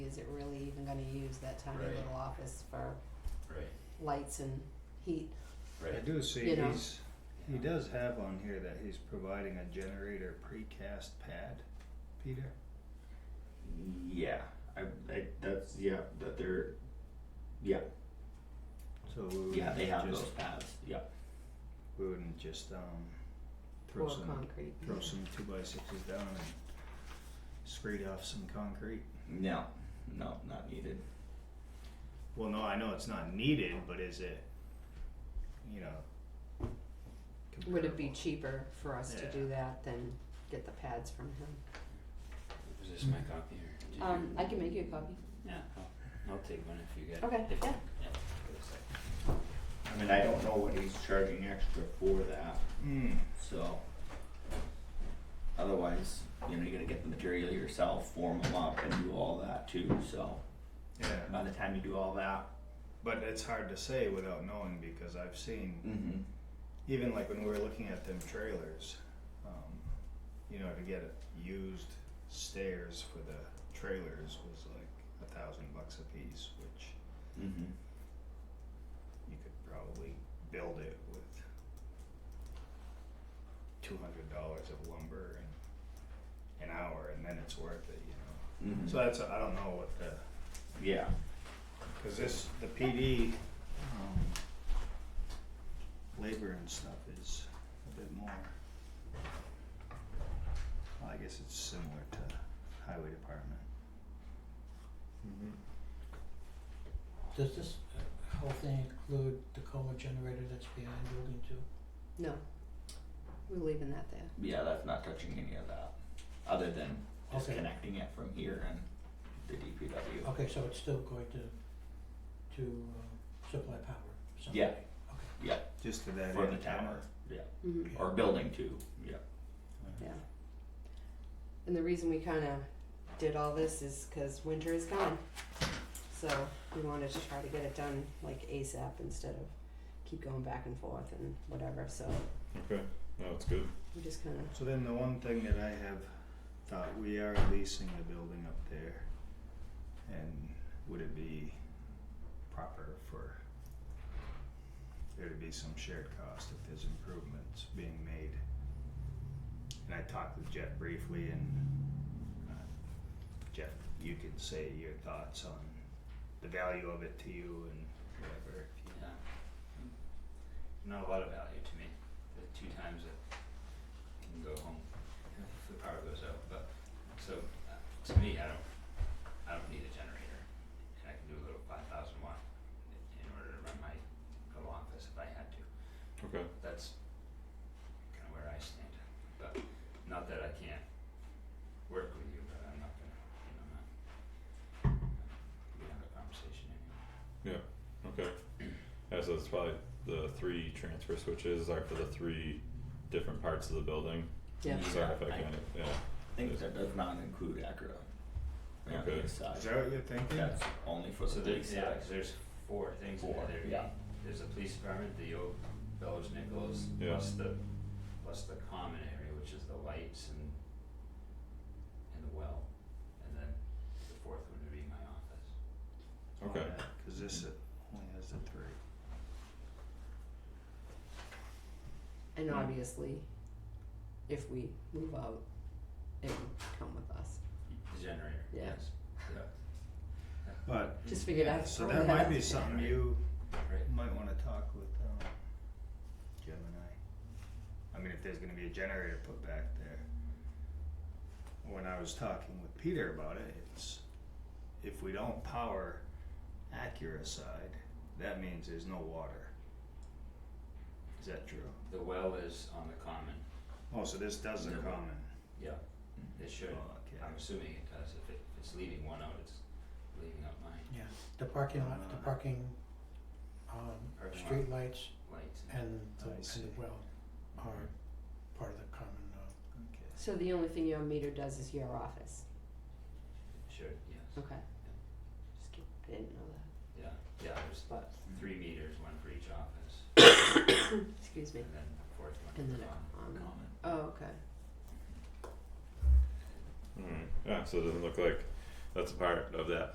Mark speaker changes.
Speaker 1: is it really even gonna use that tiny
Speaker 2: Right.
Speaker 1: little office for
Speaker 2: Right,
Speaker 1: lights and heat?
Speaker 2: right.
Speaker 3: I do see
Speaker 1: You know.
Speaker 3: he's, he does have on here that he's providing a generator precast pad, Peter.
Speaker 2: Yeah, I, I, that's, yeah, that they're, yeah,
Speaker 3: So we
Speaker 2: yeah, they have
Speaker 3: wouldn't
Speaker 2: those
Speaker 3: just,
Speaker 2: paths, yeah.
Speaker 3: we wouldn't just, um, throw
Speaker 1: Or
Speaker 3: some,
Speaker 1: concrete.
Speaker 3: throw some two by sixes down and screed off some concrete.
Speaker 2: No, no, not needed.
Speaker 3: Well, no, I know it's not needed, but is it, you know,
Speaker 1: Would it be
Speaker 3: comparable?
Speaker 1: cheaper for us to
Speaker 3: Yeah.
Speaker 1: do that than get the pads from him?
Speaker 4: Was this my copy or did you?
Speaker 1: Um, I can make you a copy.
Speaker 4: Yeah, I'll, I'll take one if you get it.
Speaker 1: Okay,
Speaker 4: If-
Speaker 1: yeah.
Speaker 4: for a sec.
Speaker 2: I mean, I don't know what he's charging extra for that,
Speaker 3: Mm,
Speaker 2: so. Otherwise, you know, you're gonna get the material yourself, form them up and do all that too, so
Speaker 3: yeah,
Speaker 2: by the time you do all that.
Speaker 3: but it's hard to say without knowing because I've seen
Speaker 2: Mm-hmm.
Speaker 3: even like when we were looking at them trailers, um, you know, to get used stairs for the trailers was like a thousand bucks a piece, which
Speaker 2: Mm-hmm.
Speaker 3: you could probably build it with two hundred dollars of lumber and an hour, and then it's worth it, you know. So that's I don't know what the
Speaker 2: mm-hmm. Yeah,
Speaker 3: Cause this, the PD, um, labor and stuff is a bit more. Well, I guess it's similar to highway department.
Speaker 5: Mm-hmm.
Speaker 6: Does this uh, whole thing include the coma generator that's behind building two?
Speaker 1: No, we're leaving that there.
Speaker 2: yeah, that's not touching any of that, other than
Speaker 6: Okay.
Speaker 2: disconnecting it from here and the DPW.
Speaker 6: Okay, so it's still going to, to uh, supply power someday?
Speaker 2: Yeah.
Speaker 6: Okay,
Speaker 2: Yeah,
Speaker 3: Just to that.
Speaker 2: for the
Speaker 3: end,
Speaker 2: tower, yeah,
Speaker 1: Mhm.
Speaker 6: Yeah.
Speaker 2: or building two, yeah.
Speaker 1: Yeah. And the reason we kinda did all this is cause winter is gone. So we wanted to try to get it done like ASAP instead of keep going back and forth and whatever, so
Speaker 5: Okay, no, it's good.
Speaker 1: we just kinda,
Speaker 3: So then the one thing that I have thought, we are leasing the building up there. And would it be proper for there to be some shared cost if there's improvements being made? And I talked with Jeff briefly and uh, Jeff, you can say your thoughts on the value of it to you and whatever.
Speaker 4: Yeah. Not a lot of value to me, the two times it can go home if the power goes out, but, so, uh, to me, I don't, I don't need a generator. And I can do a little five thousand watt i- in order to run my little office if I had to,
Speaker 5: Okay.
Speaker 4: that's kinda where I stand, but not that I can't work with you, but I'm not gonna, you know, not. We have a conversation anyway.
Speaker 5: Yeah. Okay. Yeah, so it's probably the three transfer switches are for the three different parts of the building.
Speaker 1: yeah.
Speaker 5: Sorry if I
Speaker 2: Yeah, I-
Speaker 5: kind of yeah.
Speaker 2: I think that does not include Acura. On the
Speaker 5: Okay.
Speaker 2: east side.
Speaker 3: Is that what you're thinking?
Speaker 2: That's only for
Speaker 4: So
Speaker 2: the police
Speaker 4: there's, yeah,
Speaker 2: side.
Speaker 4: 'cause there's four things in
Speaker 2: Four,
Speaker 4: there, There-
Speaker 2: yeah.
Speaker 4: there's the police department, the old Bellows Nichols,
Speaker 5: Yeah.
Speaker 4: plus the, plus the common area, which is the lights and, and the well, and then the fourth one would be my office.
Speaker 5: Okay.
Speaker 3: Yeah, Cause this only has the three.
Speaker 1: And
Speaker 3: Mm-hmm.
Speaker 1: obviously, if we move out, it would come with us.
Speaker 4: The generator,
Speaker 1: Yeah.
Speaker 4: yes, yeah,
Speaker 3: But
Speaker 1: Just figured
Speaker 3: Mm-hmm. Yeah,
Speaker 1: out.
Speaker 3: So that might be something
Speaker 4: Right.
Speaker 3: you
Speaker 4: right,
Speaker 3: might wanna talk with, um, Gemini. I mean, if there's gonna be a generator put back there. When I was talking with Peter about it, it's, if we don't power Acura side, that means there's no water. Is that true?
Speaker 4: the well is on the common,
Speaker 3: Oh, so this does the
Speaker 4: No.
Speaker 3: common,
Speaker 4: yeah, it should,
Speaker 3: Oh, okay.
Speaker 4: I'm assuming it does, if it, if it's leaving one out, it's leaving out mine,
Speaker 6: yeah, the parking lot, the
Speaker 3: Uh,
Speaker 6: parking, um,
Speaker 4: Parking lot.
Speaker 6: streetlights
Speaker 4: lights and,
Speaker 6: and the,
Speaker 3: I
Speaker 6: and
Speaker 3: see.
Speaker 6: the well are part of the common, uh,
Speaker 3: okay.
Speaker 1: So the only thing your meter does is your office,
Speaker 4: should, yes,
Speaker 1: okay? Just keep, I didn't know that,
Speaker 4: yeah, yeah, there's
Speaker 1: but,
Speaker 4: three meters, one for each office,
Speaker 1: excuse me,
Speaker 4: and then the fourth one
Speaker 1: and
Speaker 4: for
Speaker 1: then
Speaker 4: the common.
Speaker 1: a common,
Speaker 2: Common.
Speaker 1: oh, okay,
Speaker 5: Alright. Yeah, so it doesn't look like that's a part of that